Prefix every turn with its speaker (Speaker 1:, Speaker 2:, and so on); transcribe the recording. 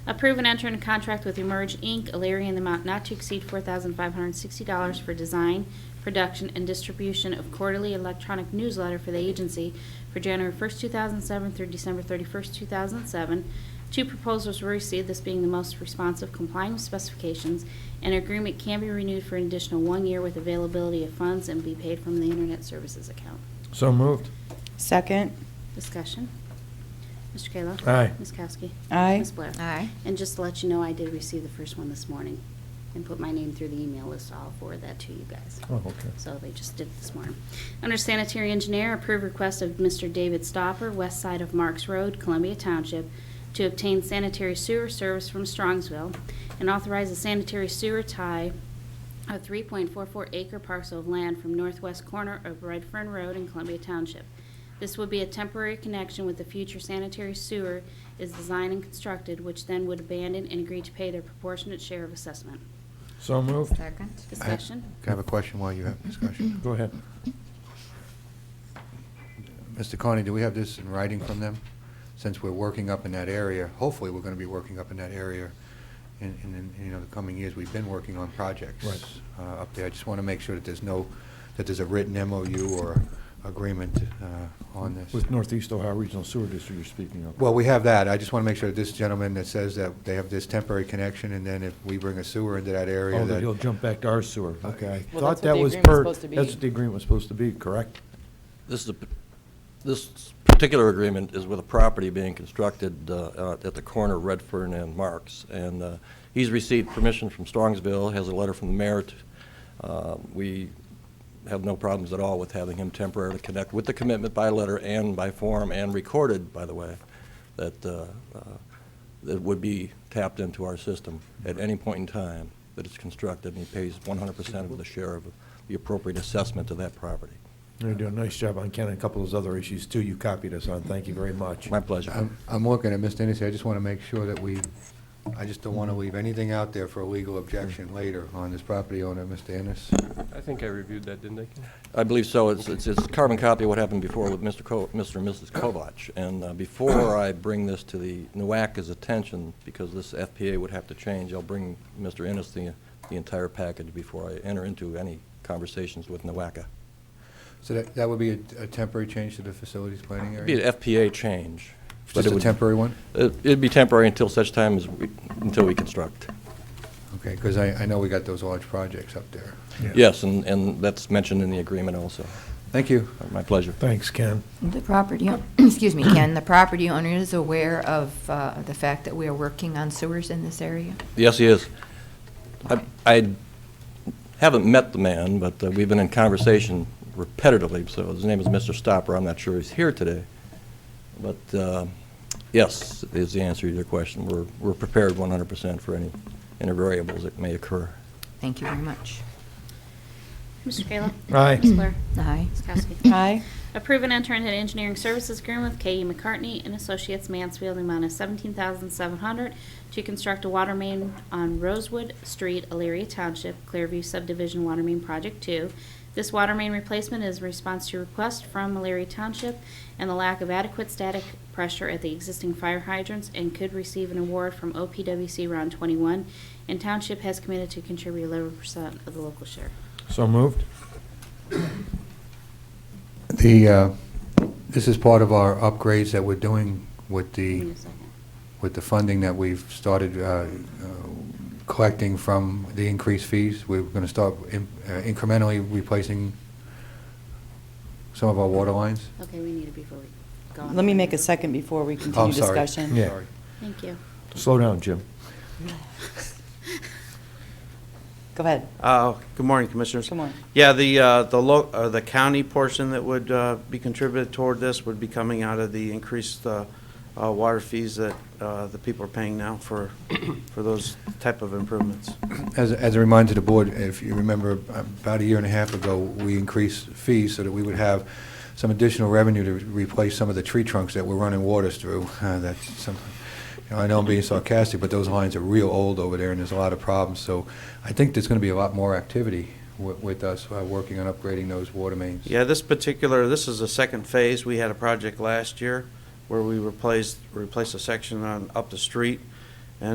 Speaker 1: Approve and enter in contract with Emerge Inc., Alariah, in the amount not to exceed $4,560 for design, production, and distribution of quarterly electronic newsletter for the agency for January 1st, 2007 through December 31st, 2007. Two proposals were received, this being the most responsive complying with specifications. An agreement can be renewed for an additional one year with availability of funds and be paid from the Internet Services account.
Speaker 2: So moved.
Speaker 3: Second.
Speaker 1: Discussion. Mr. Kayla.
Speaker 2: Aye.
Speaker 1: Ms. Kowski.
Speaker 3: Aye.
Speaker 1: Ms. Blair.
Speaker 4: Aye.
Speaker 1: And just to let you know, I did receive the first one this morning and put my name through the email list. I'll forward that to you guys.
Speaker 2: Oh, okay.
Speaker 1: So they just did it this morning. Under sanitary engineer, approve request of Mr. David Stopper, west side of Marks Road, Columbia Township, to obtain sanitary sewer service from Strongsville and authorize a sanitary sewer tie a 3.44 acre parcel of land from northwest corner of Redfern Road in Columbia Township. This would be a temporary connection with the future sanitary sewer is designed and constructed, which then would abandon and agree to pay their proportionate share of assessment.
Speaker 2: So moved.
Speaker 4: Second.
Speaker 1: Discussion?
Speaker 5: I have a question while you have discussion.
Speaker 2: Go ahead.
Speaker 5: Mr. Carney, do we have this in writing from them? Since we're working up in that area, hopefully, we're going to be working up in that area in, in, in, you know, the coming years. We've been working on projects
Speaker 2: Right.
Speaker 5: uh, up there. I just want to make sure that there's no, that there's a written MOU or agreement uh, on this.
Speaker 2: With Northeast Ohio Regional Sewer District you're speaking of.
Speaker 5: Well, we have that. I just want to make sure that this gentleman that says that they have this temporary connection, and then if we bring a sewer into that area,
Speaker 2: Oh,
Speaker 5: that-
Speaker 2: that he'll jump back to our sewer. Okay. I
Speaker 3: Well, that's
Speaker 2: thought
Speaker 3: what
Speaker 2: that
Speaker 3: the
Speaker 2: was
Speaker 3: agreement's
Speaker 2: per-
Speaker 3: supposed to be.
Speaker 2: That's what the agreement was supposed to be, correct?
Speaker 6: This is, a p- this particular agreement is with a property being constructed uh, uh, at the corner of Redfern and Marks, and uh, he's received permission from Strongsville, has a letter from the mayor. to- uh, We have no problems at all with having him temporarily connect with the commitment by letter and by form and recorded, by the way, that, uh, uh, that would be tapped into our system at any point in time that it's constructed, and he pays 100% of the share of the appropriate assessment to that property.
Speaker 2: You're doing a nice job on Ken and a couple of those other issues too. You copied us on. Thank you very much.
Speaker 6: My pleasure.
Speaker 5: I'm I'm looking at Ms. Dennison, I just want to make sure that we, I just don't want to leave anything out there for a legal objection later on this property owner, Mr. Ennis.
Speaker 7: I think I reviewed that, didn't I? Ken?
Speaker 6: I believe so. It's, it's it's a carbon copy of what happened before with Mr. Co, Mr. and Mrs. Kovach. And uh, before I bring this to the NUACA's attention, because this FPA would have to change, I'll bring Mr. Ennis the, the entire package before I enter into any conversations with NUACA.
Speaker 5: So that, that would be a a temporary change to the facilities planning
Speaker 6: It'd be
Speaker 5: area?
Speaker 6: an FPA change. but
Speaker 5: Just
Speaker 6: it
Speaker 5: a
Speaker 6: would-
Speaker 5: temporary one?
Speaker 6: it- It'd be temporary until such time as, we until we construct.
Speaker 5: Okay, because I, I know we got those large projects up there.
Speaker 6: Yes, and, and that's mentioned in the agreement also.
Speaker 5: Thank you.
Speaker 6: My pleasure.
Speaker 2: Thanks, Ken.
Speaker 4: The property, o- excuse me, Ken, the property owner is aware of uh, the fact that we are working on sewers in this area?
Speaker 6: Yes, he is. I- I haven't met the man, but uh, we've been in conversation repetitively, so his name is Mr. Stopper. I'm not sure he's here today. But uh, yes, is the answer to your question. We're we're prepared 100% for any any variables that may occur.
Speaker 4: Thank you very much.
Speaker 1: Mr. Kayla.
Speaker 2: Aye.
Speaker 1: Ms. Blair.
Speaker 4: Aye.
Speaker 1: Ms. Kowski.
Speaker 3: Aye.
Speaker 1: Approve and enter into an engineering services agreement with K.E. McCartney and Associates Mansfield in the amount of $17,700 to construct a water main on Rosewood Street, Elyria Township, Clearview Subdivision Water Main Project 2. This water main replacement is in response to request from Elyria Township and the lack of adequate static pressure at the existing fire hydrants and could receive an award from OPWC Round 21, and Township has committed to contribute 11% of the local share.
Speaker 2: So moved.
Speaker 5: The, uh, this is part of our upgrades that we're doing with
Speaker 1: Give
Speaker 5: the,
Speaker 1: me a second.
Speaker 5: with the funding that we've started uh, uh, collecting from the increased fees, we're going to start in- uh, incrementally replacing some of our water lines.
Speaker 1: Okay, we need it before we go on.
Speaker 3: Let me make a second before we
Speaker 5: Oh,
Speaker 3: continue
Speaker 5: I'm sorry.
Speaker 3: discussion.
Speaker 2: Yeah.
Speaker 5: Sorry.
Speaker 1: Thank you.
Speaker 2: Slow down, Jim.
Speaker 3: Go ahead.
Speaker 8: Uh, Good morning, Commissioners.
Speaker 3: Good morning.
Speaker 8: Yeah, the, uh, the lo- uh, the county portion that would uh, be contributed toward this would be coming out of the increased uh, uh, water fees that uh, the people are paying now for, for those type of improvements.
Speaker 5: As, as a reminder to the board, if you remember, about a year and a half ago, we increased fees so that we would have some additional revenue to replace some of the tree trunks that were running waters through. Uh, That's some, you know, I know I'm being sarcastic, but those lines are real old over there, and there's a lot of problems. So I think there's going to be a lot more activity wi- with us uh, working on upgrading those water mains.
Speaker 8: Yeah, this particular, this is the second phase. We had a project last year where we replaced, replaced a section on, up the street